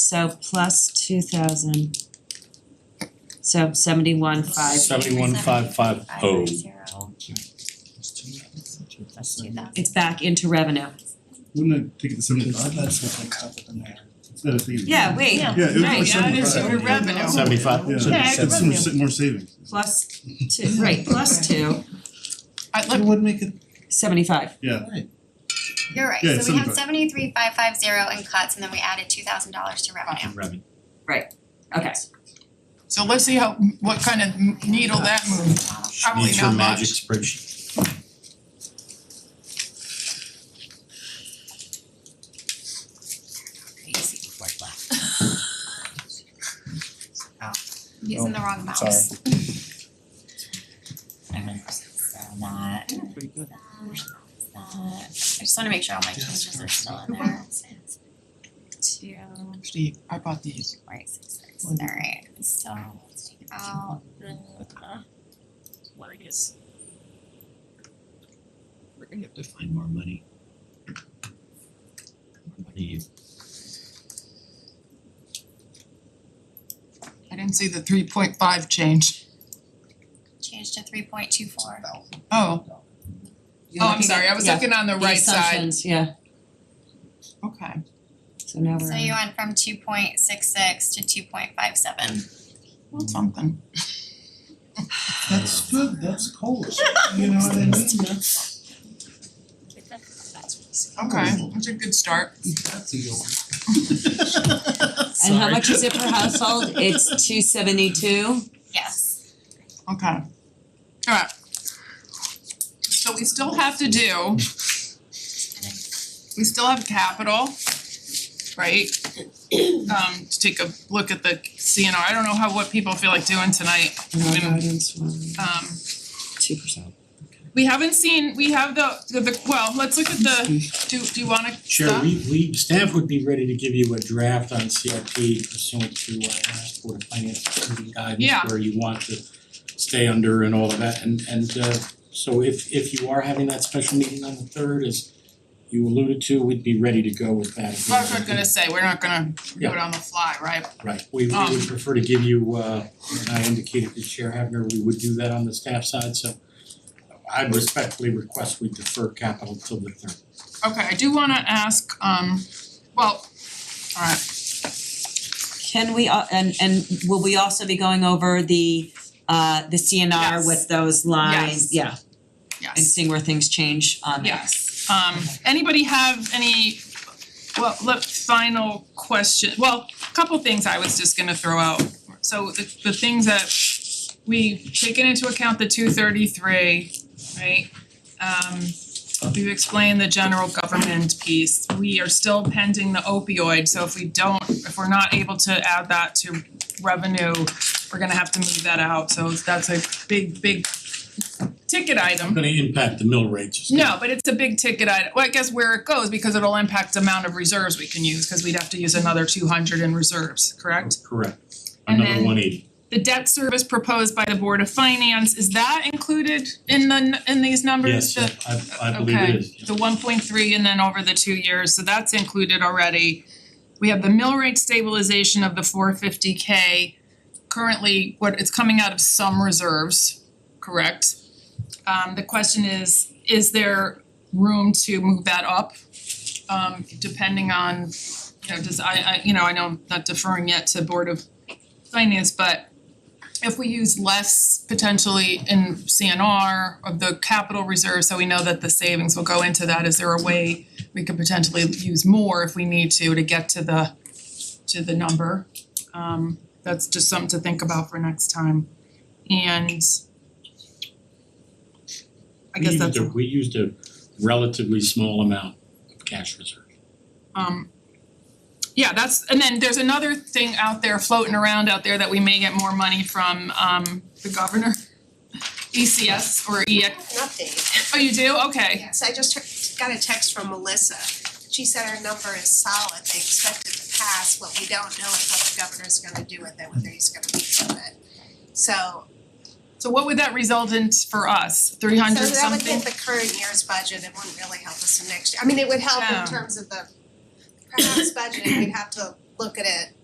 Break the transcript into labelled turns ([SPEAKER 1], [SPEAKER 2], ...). [SPEAKER 1] so plus two thousand. So seventy one five,
[SPEAKER 2] Seventy-one five five oh.
[SPEAKER 3] Plus two thousand.
[SPEAKER 1] it's back into revenue.
[SPEAKER 4] Wouldn't it take the seventy-five, that's what I caught in there, instead of thinking.
[SPEAKER 1] Yeah, wait,
[SPEAKER 3] Yeah.
[SPEAKER 4] Yeah, it was
[SPEAKER 1] Right,
[SPEAKER 4] like
[SPEAKER 1] yeah, it
[SPEAKER 4] seventy-five.
[SPEAKER 1] is your revenue.
[SPEAKER 2] Seventy-five?
[SPEAKER 4] Yeah,
[SPEAKER 3] Yeah,
[SPEAKER 4] it's- it's
[SPEAKER 3] revenue.
[SPEAKER 4] more sa- more savings.
[SPEAKER 1] plus two, right, plus two,
[SPEAKER 5] I
[SPEAKER 4] It
[SPEAKER 5] like,
[SPEAKER 4] would make it,
[SPEAKER 1] seventy five.
[SPEAKER 4] yeah,
[SPEAKER 6] You're right,
[SPEAKER 4] Yeah,
[SPEAKER 6] so we had
[SPEAKER 4] 75.
[SPEAKER 6] seventy-three, five, five, zero in cuts, and then we added two thousand dollars to revenue.
[SPEAKER 2] Revenue.
[SPEAKER 1] Okay,
[SPEAKER 5] so let's see how, what kind of needle that moves. Probably
[SPEAKER 2] Needs your
[SPEAKER 5] not
[SPEAKER 2] magic
[SPEAKER 5] much.
[SPEAKER 2] spreadsheet.
[SPEAKER 6] Using the wrong mouse.
[SPEAKER 3] So that,
[SPEAKER 6] Uh,
[SPEAKER 3] that, I just wanna make sure all my changes are still in there. Two,
[SPEAKER 5] Actually, I bought these.
[SPEAKER 3] four, eight, six, six, alright, so
[SPEAKER 6] um,
[SPEAKER 3] let's take out the,
[SPEAKER 7] what I guess.
[SPEAKER 5] We're gonna have to find more money. I didn't see the three point five change.
[SPEAKER 6] Changed to three point two four.
[SPEAKER 5] Oh, oh, I'm sorry, I was looking on the right
[SPEAKER 1] The
[SPEAKER 5] side.
[SPEAKER 1] assumptions, yeah,
[SPEAKER 5] Okay.
[SPEAKER 1] so now we're
[SPEAKER 6] So
[SPEAKER 1] on-
[SPEAKER 6] you went from two point six six to two point five seven.
[SPEAKER 5] Well, something.
[SPEAKER 4] that's good, that's cold, you know what I mean, that's,
[SPEAKER 5] Okay, that's a good start.
[SPEAKER 4] that's a good one.
[SPEAKER 1] And how much is it per household? It's two seventy two.
[SPEAKER 6] Yes,
[SPEAKER 5] Okay. Alright. So we still have to do. We still have capital, right? Um, to take a look at the CNR, I don't know how, what people feel like doing tonight,
[SPEAKER 1] And our guidance was
[SPEAKER 5] um.
[SPEAKER 1] two percent.
[SPEAKER 5] We haven't seen, we have the, the- the, well, let's look at the, do, do you wanna
[SPEAKER 2] Sure,
[SPEAKER 5] stop?
[SPEAKER 2] we we staff would be ready to give you a draft on CIP pursuant to uh last Board of Finance Committee
[SPEAKER 5] Yeah.
[SPEAKER 2] guidance where you want to stay under and all of that and and uh so if if you are having that special meeting on the third as you alluded to, we'd be ready to go with that.
[SPEAKER 5] I was not gonna say, we're not gonna do it on the fly, right?
[SPEAKER 2] Right, we we
[SPEAKER 5] Um.
[SPEAKER 2] would prefer to give you, uh, and I indicated to Chair Havner, we would do that on the staff side, so I respectfully request we defer capital till the third.
[SPEAKER 5] Okay, I do wanna ask, um, well, alright,
[SPEAKER 1] Can we, al- and and will we also be going over the uh the CNR
[SPEAKER 5] Yes.
[SPEAKER 1] with those lines?
[SPEAKER 5] Yes.
[SPEAKER 1] Yeah,
[SPEAKER 5] yes.
[SPEAKER 1] and seeing where things change on that.
[SPEAKER 5] Yes, um anybody have any, well, look, final question, well, a couple things I was just gonna throw out. So the the things that we've taken into account the two thirty three, right? Um we've explained the general government piece, we are still pending the opioid, so if we don't, if we're not able to add that to revenue, we're gonna have to move that out, so that's a big, big ticket item.
[SPEAKER 2] Gonna impact the mill rates. it's gonna
[SPEAKER 5] No, but it's a big ticket item. Well, I guess where it goes because it'll impact the amount of reserves we can use because we'd have to use another two hundred in reserves, correct?
[SPEAKER 2] Correct,
[SPEAKER 5] And
[SPEAKER 2] another
[SPEAKER 5] then-
[SPEAKER 2] one eighty.
[SPEAKER 5] The debt service proposed by the Board of Finance, is that included in the n- in these numbers?
[SPEAKER 2] Yes,
[SPEAKER 5] The-
[SPEAKER 2] I I believe
[SPEAKER 5] okay.
[SPEAKER 2] it is.
[SPEAKER 5] The one point three and then over the two years, so that's included already. We have the mill rate stabilization of the four fifty K. Currently, what it's coming out of some reserves, correct? Um the question is, is there room to move that up? Um depending on, you know, does I I, you know, I know I'm not deferring yet to Board of Finance, but if we use less potentially in CNR of the capital reserve, so we know that the savings will go into that, is there a way we could potentially use more if we need to to get to the to the number? Um that's just something to think about for next time. And I guess that's all.
[SPEAKER 2] We used a, we used a relatively small amount of cash reserve.
[SPEAKER 5] Um yeah, that's and then there's another thing out there floating around out there that we may get more money from um the governor. ECS or
[SPEAKER 8] I
[SPEAKER 5] EX,
[SPEAKER 8] have an update.
[SPEAKER 5] oh you do? Okay.
[SPEAKER 8] Yes, I just heard- got a text from Melissa. She said our number is solid. They expect it to pass. What we don't know is what the governor's gonna do with it, whether he's gonna veto it. So,
[SPEAKER 5] So what would that result in for us? Three
[SPEAKER 8] so
[SPEAKER 5] hundred
[SPEAKER 8] that would
[SPEAKER 5] something?
[SPEAKER 8] hit the current year's budget. It wouldn't really help
[SPEAKER 5] Oh.
[SPEAKER 8] us in next year. I mean, it would help
[SPEAKER 5] Yeah.
[SPEAKER 8] in terms of the perhaps budget. We'd have to look at it